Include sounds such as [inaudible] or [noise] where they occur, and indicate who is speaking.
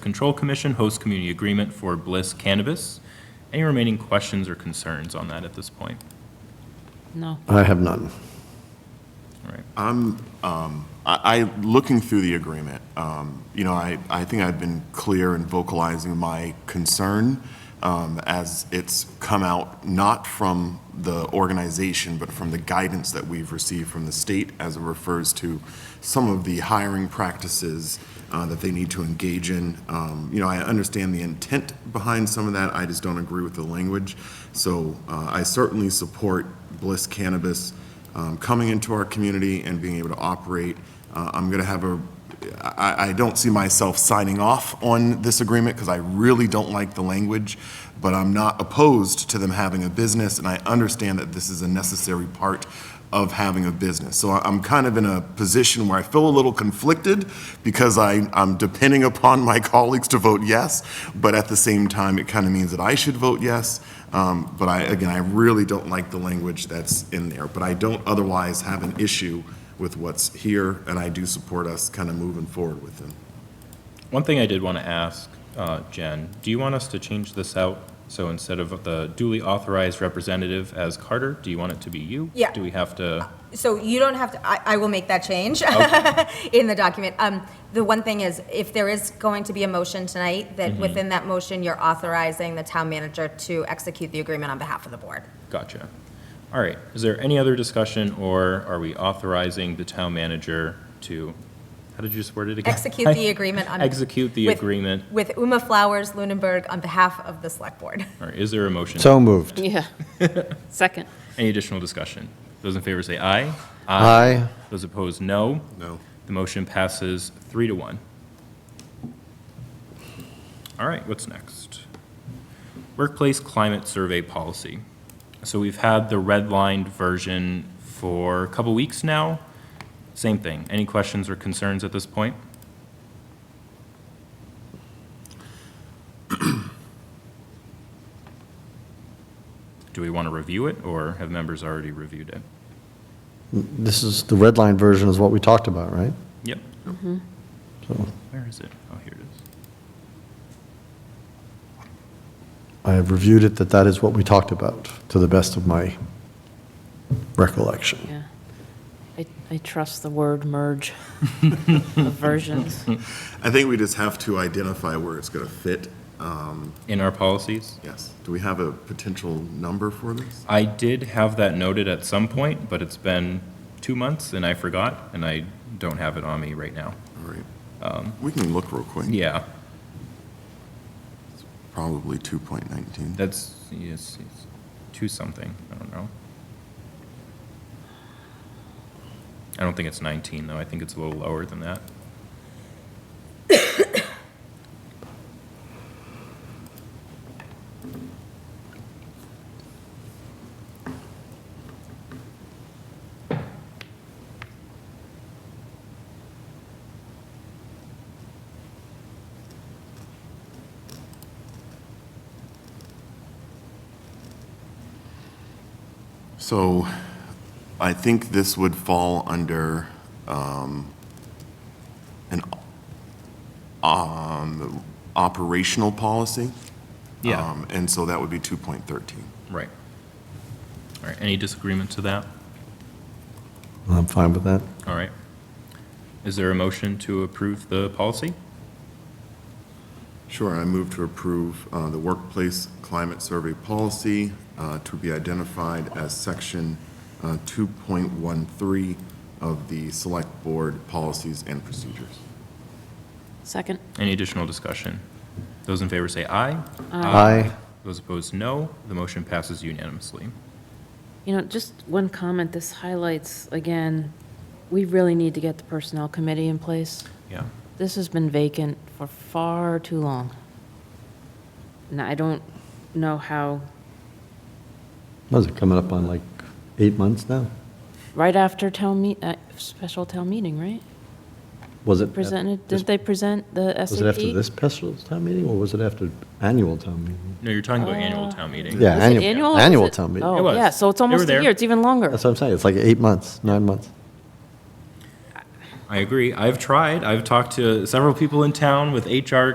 Speaker 1: Control Commission Host Community Agreement for Bliss Cannabis. Any remaining questions or concerns on that at this point?
Speaker 2: No.
Speaker 3: I have none.
Speaker 1: All right.
Speaker 4: I, I- looking through the agreement, um, you know, I, I think I've been clear in vocalizing my concern um, as it's come out not from the organization, but from the guidance that we've received from the state as it refers to some of the hiring practices uh, that they need to engage in. Um, You know, I understand the intent behind some of that, I just don't agree with the language. So uh, I certainly support Bliss Cannabis um, coming into our community and being able to operate. Uh, I'm going to have a, I, I don't see myself signing off on this agreement because I really don't like the language, but I'm not opposed to them having a business, and I understand that this is a necessary part of having a business. So I- I'm kind of in a position where I feel a little conflicted because I, I'm depending upon my [laughs] colleagues to vote yes, but at the same time, it kind of means that I should vote yes. Um, But I, again, I really don't like the language that's in there, but I don't otherwise have an issue with what's here, and I do support us kind of moving forward with them.
Speaker 1: One thing I did want to ask, uh, Jen, do you want us to change this out? So instead of the duly authorized representative as Carter, do you want it to be you?
Speaker 5: Yeah.
Speaker 1: Do we have to?
Speaker 5: So you don't have to, I, I will make that change [laughs] in the document. Um, the one thing is, if there is going to be a motion tonight, that within that motion, you're authorizing the town manager to execute the agreement on behalf of the board.
Speaker 1: Gotcha. All right. Is there any other discussion, or are we authorizing the town manager to, how did you just word it again?
Speaker 5: Execute
Speaker 1: [laughs]
Speaker 5: the agreement on.
Speaker 1: Execute the
Speaker 5: with-
Speaker 1: agreement,
Speaker 5: With Uma Flowers Lunenburg on behalf of the select board.
Speaker 1: or is there a motion?
Speaker 3: So moved.
Speaker 2: Yeah. [laughs] Second.
Speaker 1: Any additional discussion? Those in favor say aye.
Speaker 3: Aye.
Speaker 1: Those opposed, no.
Speaker 4: No.
Speaker 1: The motion passes three to one. All right, what's next? Workplace climate survey policy. So we've had the redlined version for a couple weeks now. Same thing. Any questions or concerns at this point? Do we want to review it, or have members already reviewed it?
Speaker 3: This is, the red line version is what we talked about, right?
Speaker 1: Yep.
Speaker 3: So
Speaker 1: Where is it? Oh, here it is.
Speaker 3: I have reviewed it, that that is what we talked about, to the best of my recollection.
Speaker 2: Yeah. I, I trust the word merge [laughs] of versions.
Speaker 4: I think we just have to identify where it's going to fit. Um,
Speaker 1: In our policies?
Speaker 4: Yes. Do we have a potential number for this?
Speaker 1: I did have that noted at some point, but it's been two months and I forgot, and I don't have it on me right now.
Speaker 4: All right. We can look real quick.
Speaker 1: Yeah,
Speaker 4: Probably 2.19.
Speaker 1: that's, yes, it's two something, I don't know. I don't think it's 19, though, I think it's a little lower than that.
Speaker 4: So I think this would fall under um, an um, operational policy. Um, And so that would be 2.13.
Speaker 1: Right. All right, any disagreement to that?
Speaker 3: I'm fine with that.
Speaker 1: All right. Is there a motion to approve the policy?
Speaker 4: Sure, I move to approve uh, the workplace climate survey policy uh, to be identified as section uh, 2.13 of the Select Board Policies and Procedures.
Speaker 2: Second.
Speaker 1: Any additional discussion? Those in favor say aye.
Speaker 3: Aye.
Speaker 1: Those opposed, no. The motion passes unanimously.
Speaker 2: You know, just one comment, this highlights, again, we really need to get the Personnel Committee in place.
Speaker 1: Yeah.
Speaker 2: This has been vacant for far too long. And I don't know how,
Speaker 3: Was it coming up on like eight months now?
Speaker 2: right after town meet, uh, special town meeting, right?
Speaker 3: Was it?
Speaker 2: Presented,
Speaker 3: this-
Speaker 2: didn't they present the SAP?
Speaker 3: Was it after this special town meeting, or was it after annual town meeting?
Speaker 1: No, you're talking about annual town meeting.
Speaker 3: Yeah,
Speaker 2: Was it
Speaker 3: annual,
Speaker 2: or was
Speaker 3: annual
Speaker 2: it-
Speaker 3: town meeting.
Speaker 1: It
Speaker 2: Oh,
Speaker 1: was.
Speaker 2: yeah, so it's
Speaker 1: They were
Speaker 2: almost
Speaker 1: there.
Speaker 2: a year, it's even longer.
Speaker 3: That's what I'm saying, it's like eight months, nine months.
Speaker 1: I agree. I've tried. I've talked to several people in town with HR